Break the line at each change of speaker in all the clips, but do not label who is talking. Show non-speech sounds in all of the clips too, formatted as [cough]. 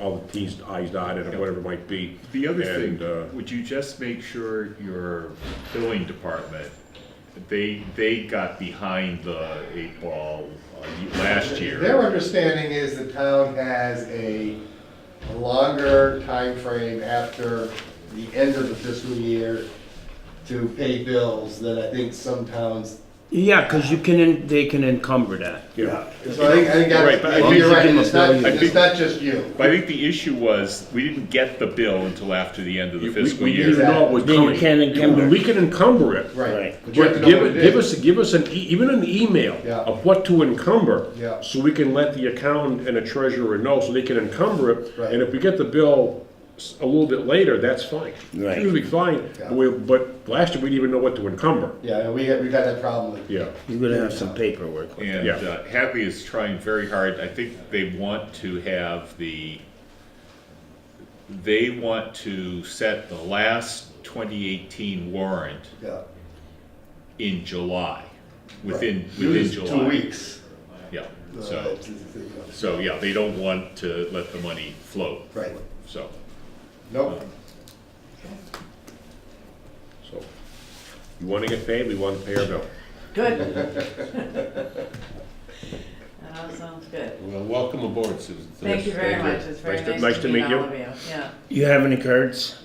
all the Ts, Is dotted, or whatever it might be.
The other
And, uh,
thing, would you just make sure your billing department, they, they got behind the eight ball uh, ye- last
Their
year?
understanding is the town has a a longer time frame after the end of the fiscal year to pay bills than I think some towns.
Yeah, because you can, en- they can encumber that.
Yeah,
So I think, I think
Right, but I
that's,
think-
you're right, and it's not,
I
and
think-
it's not just you.
But I think the issue was, we didn't get the bill until after the end of the
we,
fiscal
we didn't
year.
know it was
Then you
coming.
can encumber.
We can encumber it.
Right.
Right.
But you have to
But
know
give,
what
it-
it
give
is.
us, give us an, e- even an email
Yeah.
of what to encumber.
Yeah.
So we can let the accountant and the treasurer know, so they can encumber it.
Right.
And if we get the bill s- a little bit later, that's fine.
Right.
Usually fine,
Yeah.
but, we- but last year we didn't even know what to encumber.
Yeah, we had, we got that problem.
Yeah,
You're gonna have some paperwork. with it.
And
Yeah.
uh, Hadley is trying very hard, I think they want to have the, they want to set the last twenty eighteen warrant
Yeah.
in July, within, within
Use
July.
Two weeks.
Yeah,
Uh,
so.
it's- it's- it's-
So, yeah, they don't want to let the money float,
Right,
so.
nope,
so. You wanna get paid, we wanna pay our bill.
[laughs] Good. That all sounds good.
Well, welcome aboard, Susan.
Thank you very much, it's very
Nice to-
nice to meet all of you, yeah.
You have any cards?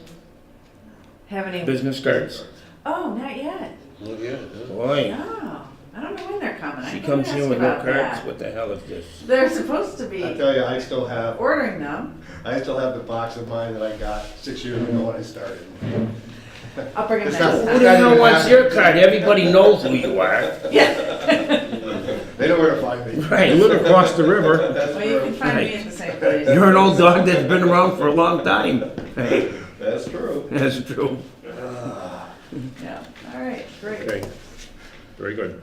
Have any,
Business cards?
oh, not yet,
Well, yeah, yeah.
Boy,
no, I don't know when they're coming, I
she
didn't
comes
ask
here with no
about
cards.
that.
What the hell is this?
They're supposed to
I
be
tell you, I still have,
ordering them,
I still have the box of mine that I got six years ago when I started.
I'll bring them
It's not-
next
Who
time.
the hell wants your card? Everybody knows who you are.
Yeah,
They know where to find me.
You
Right.
live across the river.
That's
well, you
true.
can find me at the same place.
You're an old dog that's been around for a long time. [laughs] Right,
That's true.
That's true.
Yeah, all right, great,
Okay, very good.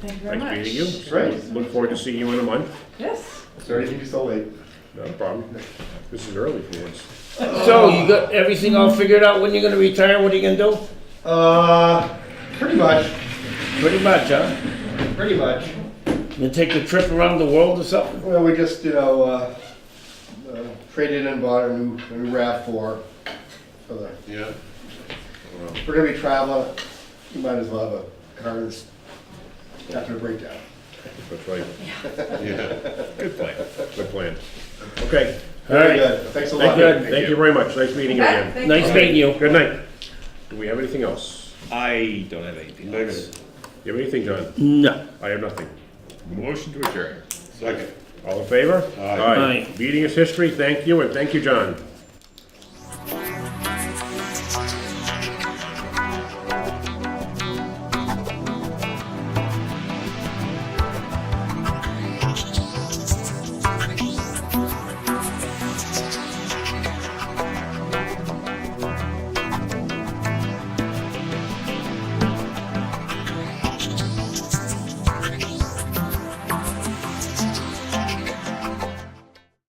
thank you very much.
Nice meeting you.
Great.
Look forward to seeing you in a month.
Yes,
Sorry to keep you so late.
Not a problem. This is early for once.
So you got everything all figured out? When you're gonna retire? What are you gonna do?
Uh, pretty much,
Pretty much, huh?
pretty much.
You take a trip around the world or something?
Well, we just, you know, uh, uh, traded and bought a new, a new RAV4 for the,
yeah.
if we're gonna be traveling, you might as well have a car that's after a breakdown.
That's right.
yeah.
Good plan.
Good plan. Okay.
All
Very
right.
good, thanks a lot.
Thank you.
Thank
Thank you very much. Nice meeting you
Ah,
again.
thank
Nice
you.
meeting you.
Good night. Do we have anything else?
I don't have anything else.
Negative.
You have anything, John?
No.
I have nothing.
Motion to adjourn.
Second.
All in favor?
Aye.
Aye.
Meeting is history. Thank you, and thank you, John.